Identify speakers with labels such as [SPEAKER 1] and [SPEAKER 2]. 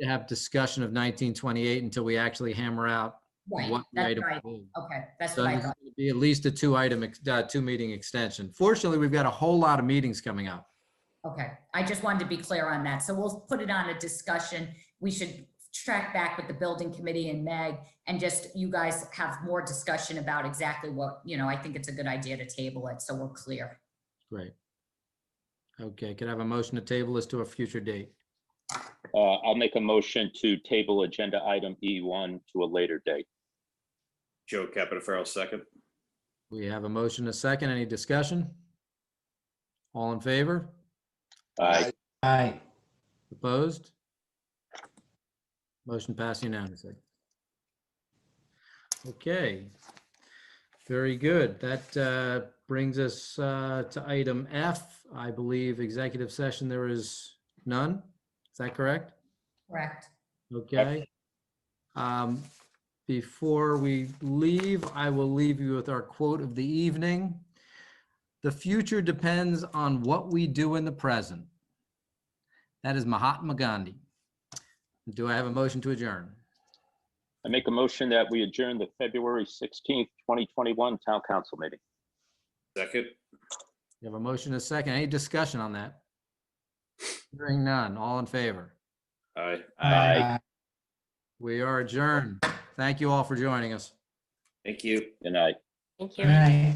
[SPEAKER 1] to have discussion of 1928 until we actually hammer out
[SPEAKER 2] Right,
[SPEAKER 1] what the
[SPEAKER 2] that's
[SPEAKER 1] item.
[SPEAKER 2] right.
[SPEAKER 1] will be.
[SPEAKER 2] Okay, that's
[SPEAKER 1] So
[SPEAKER 2] what I
[SPEAKER 1] it's
[SPEAKER 2] thought.
[SPEAKER 1] going to be at least a two-item, ex- uh, two-meeting extension. Fortunately, we've got a whole lot of meetings coming up.
[SPEAKER 2] Okay, I just wanted to be clear on that. So we'll put it on a discussion. We should track back with the building committee and Meg and just you guys have more discussion about exactly what, you know, I think it's a good idea to table it, so we're clear.
[SPEAKER 1] Great. Okay, could I have a motion to table this to a future date?
[SPEAKER 3] Uh, I'll make a motion to table agenda item E1 to a later date.
[SPEAKER 4] Joe Capitafaro, second.
[SPEAKER 1] We have a motion, a second, any discussion? All in favor?
[SPEAKER 3] Aye.
[SPEAKER 5] Aye.
[SPEAKER 1] Opposed? Motion passed unanimously. Okay. Very good. That uh, brings us uh, to item F, I believe, executive session, there is none. Is that correct?
[SPEAKER 2] Correct.
[SPEAKER 1] Okay. Um, Before we leave, I will leave you with our quote of the evening. The future depends on what we do in the present. That is Mahatma Gandhi. Do I have a motion to adjourn?
[SPEAKER 3] I make a motion that we adjourn the February 16th, 2021 Town Council meeting.
[SPEAKER 4] Second.
[SPEAKER 1] You have a motion, and a second. Any discussion on that? Hearing none. All in favor?
[SPEAKER 4] Aye.
[SPEAKER 3] Aye.
[SPEAKER 1] We are adjourned. Thank you all for joining us.
[SPEAKER 4] Thank you.
[SPEAKER 3] Good night.
[SPEAKER 6] Thank you.
[SPEAKER 5] Aye.